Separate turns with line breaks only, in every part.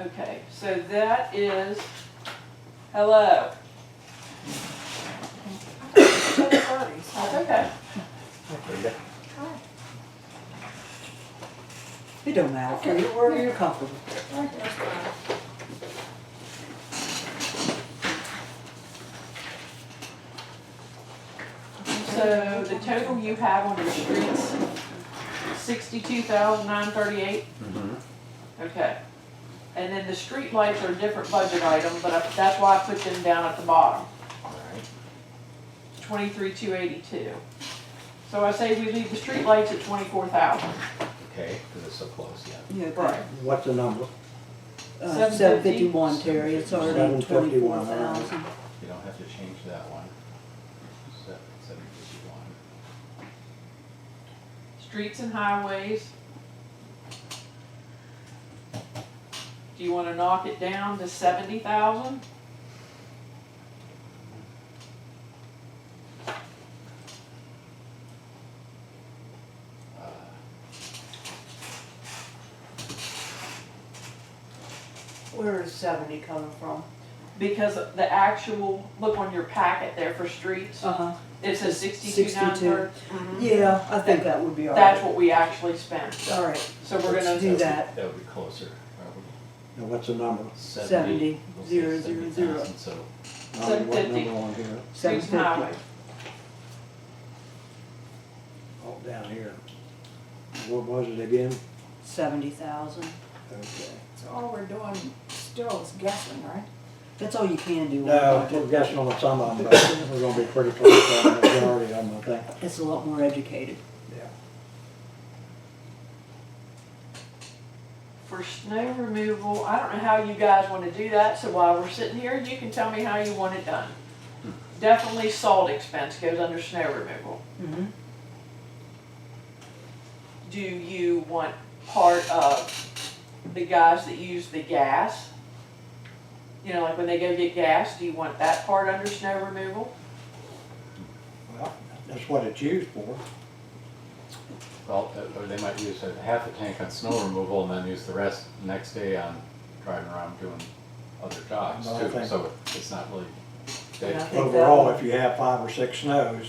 Okay, so that is, hello, that's okay.
It don't matter, for you, wherever you're comfortable.
So the total you have on your streets, sixty-two thousand nine thirty-eight?
Mm-hmm.
Okay. And then the street lights are a different budget item, but I- that's why I put them down at the bottom, twenty-three two eighty-two. So I say we leave the street lights at twenty-four thousand.
Okay, because it's so close, yeah.
Yeah, but,
What's the number?
uh, seven fifty-one, Terry, it's already twenty-four
751, all right.
thousand.
You don't have to change that one. Se- Seven fifty-one.
Streets and highways. Do you wanna knock it down to seventy thousand?
Uh,
Where is seventy coming from?
Because the actual, look on your packet there for streets,
Uh-huh,
it says sixty-two nine
62.
thirty.
Mm-hmm. yeah, I think that would be all
That's
right.
what we actually spent,
All right,
so we're
Let's
gonna,
Do that.
That would be closer. probably.
Now, what's the number?
Seventy.
Seventy,
We'll say
zero, zero, zero.
70,000, So,
Now, what
750.
number on here?
seven
streets and highways.
fifty.
Oh, down here. What was it again?
Seventy thousand.
Okay.
So all we're doing still is guessing, right?
That's all you can do. on
No,
a
we're
budget.
guessing on some of them, but we're gonna be pretty close on the majority of them, I think.
It's a lot more educated.
Yeah.
For snow removal, I don't know how you guys wanna do that, so while we're sitting here, you can tell me how you want it done. Definitely salt expense goes under snow removal.
Mm-hmm.
Do you want part of the guys that use the gas? You know, like when they go get gas, do you want that part under snow removal?
Well, that's what it's used for.
well, uh, or they might use a half a tank on snow removal and then use the rest next day on driving around doing other jobs
Another
too.
thing.
So it's not really.
Yeah. think that
Overall,
would-
if you have five or six snows,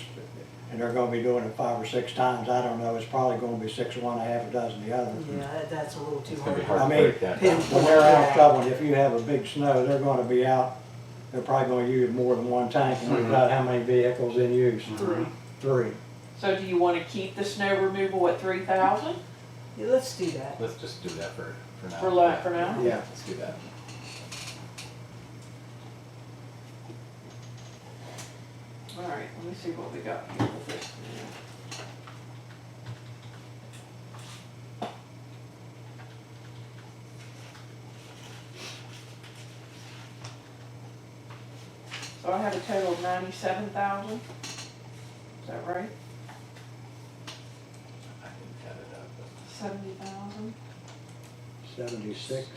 and they're gonna be doing it five or six times, I don't know, it's probably gonna be six of one, a half a dozen of the other.
Yeah, that- that's a little too
It's gonna be
hard.
hard to
I mean,
break that down.
When they're out shoveling, if you have a big snow, they're gonna be out, they're probably gonna use more than one tank, and we've got how many vehicles in use?
Three.
Mm-hmm. Three.
So do you wanna keep the snow removal at three thousand?
Yeah, let's do that.
Let's just do that for, for now.
For lo- for now?
Yeah.
Let's do that.
Alright, let me see what we got here with this. So I have a total of ninety-seven thousand, is that right?
I didn't cut it up, but-
Seventy thousand,
Seventy-six.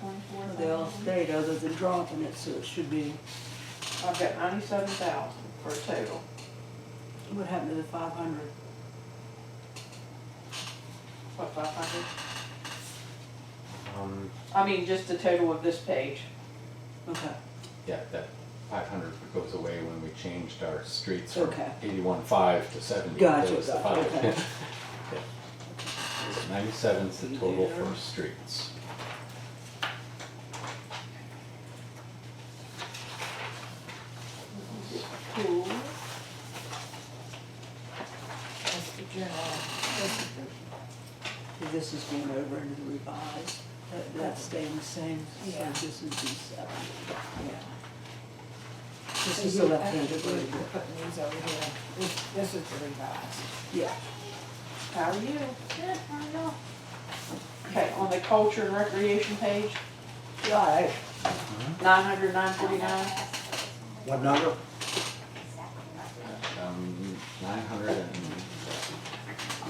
twenty-four
Well,
thousand.
They all stayed other than dropping it, so it should be,
I've got ninety-seven thousand for a total.
what happened to the five hundred?
What, five hundred?
Um,
I mean, just the total of this page.
Okay,
Yeah, that five hundred goes away when we changed our streets from
Okay.
eighty-one five to seventy.
Gotcha,
That was the
gotcha,
five.
okay.
Yeah. So Ninety-seven's the total for streets.
Cool.
That's the general, that's the
this is going over into the revised, that, that's staying the same, so
Yeah.
this is the seven.
yeah.
This
So
is the
you- I
left-handed
think we're
version.
Putting these over here, this, this is the revised.
Yeah,
How are you?
Good, I know.
Okay, on the culture and recreation page,
right,
nine hundred, nine forty-nine,
What number?
Um, nine hundred and,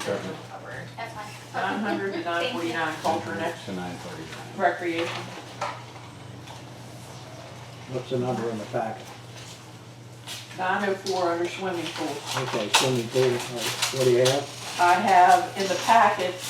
government,
That's fine.
nine hundred to nine forty-nine,
nine
culture and
hundred
ex-
to nine thirty-nine.
recreation.
What's the number in the packet?
Nine oh four under swimming pool.
uh, Okay, swimming pool, all right, what do you have?
I have in the packet